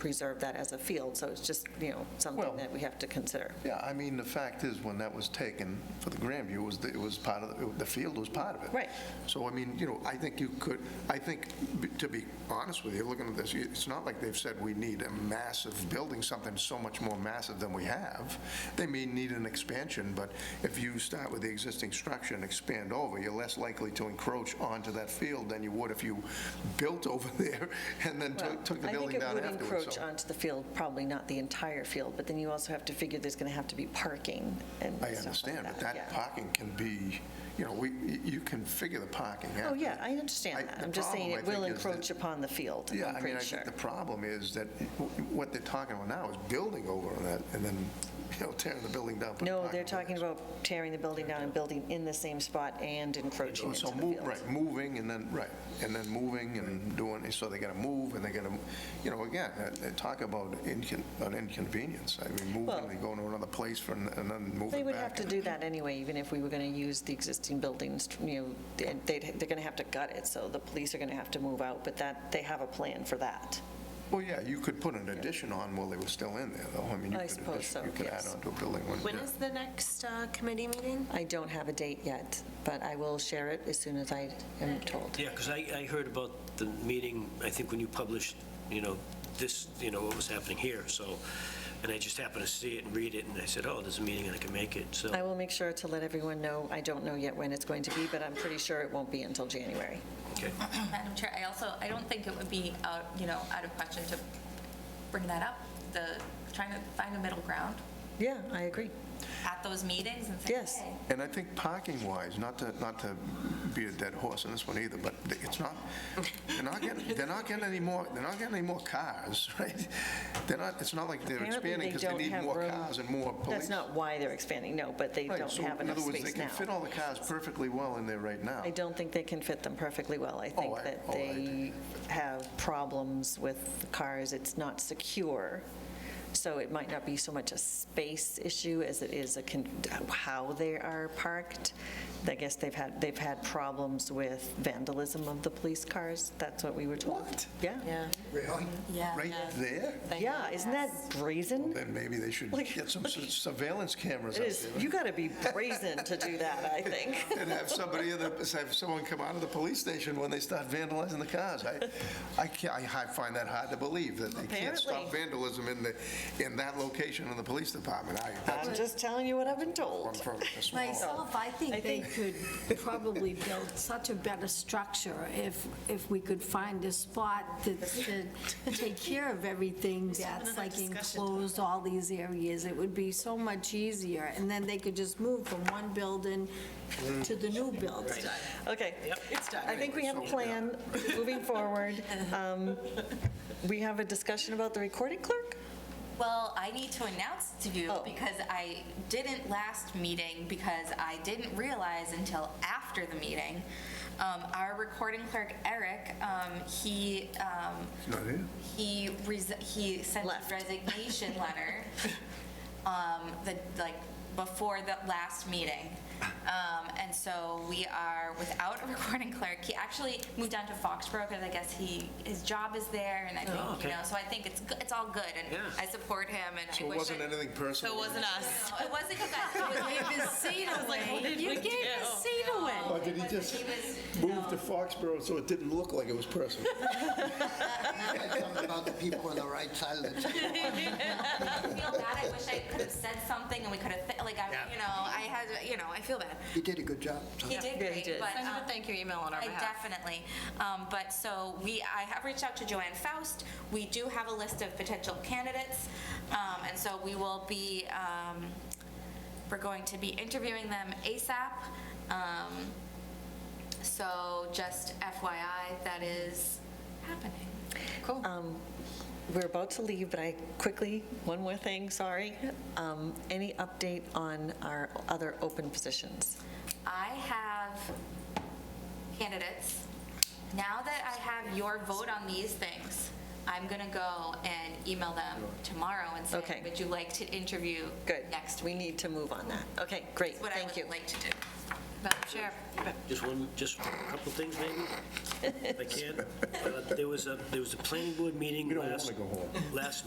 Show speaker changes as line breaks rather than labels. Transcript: preserve that as a field, so it's just, you know,
Well-
something that we have to consider.
Yeah, I mean, the fact is, when that was taken for the Grandview, it was, it was part of, the field was part of it.
Right.
So, I mean, you know, I think you could, I think, b- to be honest with you, looking at this, it's not like they've said we need a massive building, something so much more massive than we have. They may need an expansion, but if you start with the existing structure and expand over, you're less likely to encroach onto that field than you would if you built over there and then
Well,
took took the building down
I think it would
afterwards.
encroach
so-
onto the field, probably not the entire field, but then you also have to figure there's going to have to be parking and stuff
I
like that.
understand, but that
yeah.
parking can be, you know, we, you can figure the parking out.
Oh, yeah, I
I-
understand that.
the
I'm just saying
problem,
it
I
will
think, is that-
encroach upon the field,
Yeah,
I'm
I mean, I
pretty sure.
think the problem is that what they're talking about now is building over on that and then, you know, tearing the building down. putting
No, they're talking
parking over
about tearing the building down and building in the same spot and encroaching
there.
into
Oh, So
the
move,
field.
right, moving and then, right, and then moving and doing, so they gotta move and they gotta, you know, again, uh, they talk about incon- an inconvenience. I mean,
Well-
moving, they go to another place for, an- and then moving back.
They would have to
and-
do that anyway, even if we were going to use the existing buildings, you know, they'd- they'd, they're going to have to gut it, so the police are going to have to move out, but that, they have a plan for that.
Well, yeah, you could put an addition on while they were still in there, though. I mean, you
I
could
suppose
addition-
so,
You could add
yes.
on to a building. when-
When
yeah.
is the next uh, committee meeting?
I don't have a date yet, but I will share it as soon as I am told.
Yeah, because I, I heard about the meeting, I think when you published, you know, this, you know, what was happening here, so, and I just happened to see it and read it, and I said, oh, there's a meeting and I can make it, so.
I will make sure to let everyone know, I don't know yet when it's going to be, but I'm pretty sure it won't be until January.
Okay.
Madam Chair, I also, I don't think it would be, out you know, out of question to bring that up, the, trying to find a middle ground
Yeah, I agree.
at those meetings and say,
Yes.
hey,
And I think parking-wise, not to, not to be a dead horse on this one either, but it's not, they're not getting, they're not getting any more, they're not getting any more cars, right? They're not, it's not like they're
Apparently,
expanding
they
because they
don't
need
have
more
room.
cars and more police.
That's not why they're expanding, no, but they
Right,
don't
so
have enough
In other words,
space
they can fit
now.
all the cars perfectly well in there right now.
I don't think they can fit them perfectly well. I think
I-
that
oh, I
they
do.
have problems with the cars, it's not secure, so it might not be so much a space issue as it is a, con- how they are parked. I guess they've had, they've had problems with vandalism of the police cars, that's what we were told.
What?
Yeah.
Really?
Yeah.
Right there?
Yeah, isn't that brazen?
Then maybe they should
Like-
get some s- surveillance cameras
It
out
is,
there.
you got to be brazen to do that, I think.
and have somebody, in the- have someone come out of the police station when they start vandalizing the cars. I, I can't, I hi- find that hard to believe, that they can't stop
Apparently.
vandalism in the, in that location in the police department. I, that's
I'm just telling you what I've been told.
one from a small.
Myself, I
I
think they
think-
could probably build such a better structure if, if we could find a spot that that take care of everything that's like enclosed, all these areas. It would be so much easier, and then they could just move from one building to the new building.
Okay.
It's done.
I think we have a
So, yeah.
plan moving forward. Um, We have a discussion about the recording clerk?
Well, I need to announce to you
Oh.
because I didn't last meeting because I didn't realize until after the meeting. Um, our recording clerk, Eric, um, he, um,
Not here?
he, resi- he sent
Left.
a resignation letter, um, the, like, before the last meeting. Um, and so we are without a recording clerk. He actually moved down to Foxborough because I guess he, his job is there and I
Oh,
think,
okay.
you know, so I think it's, go- it's all good and
Yeah.
I support him and I wish.
So it wasn't
I-
anything personal?
So it wasn't us.
No, It wasn't you guys. It was
Gave his seat away. You gave his seat away.
Or did he just move to Foxborough so it didn't look like it was personal?
Something about the people on the right side of the table.
I feel bad. I wish I could have said something and we could have, fi- like, I, you know, I had, you know, I feel bad.
You did a good job. so-
He did
Yeah, he
great,
did.
but.
Send him
um,
a thank you email on our
I
behalf.
Definitely. Um, But so we, I have reached out to Joanne Faust. We do have a list of potential candidates. Um, And so we will be, um, we're going to be interviewing them ASAP. Um, So just FYI, that is happening.
Um, We're about to leave, but I quickly, one more thing, sorry. Um, Any update on our other open positions?
I have candidates. Now that I have your vote on these things, I'm going to go and email them tomorrow and
Okay.
say, would you like to interview
Good.
next week?
We need to move on that. Okay, great,
What I
thank you.
would like to do. Madam Chair.
Just one, just a couple things maybe, if I can. Uh, There was a, there was a planning board meeting
We don't
last,
wanna go home.
last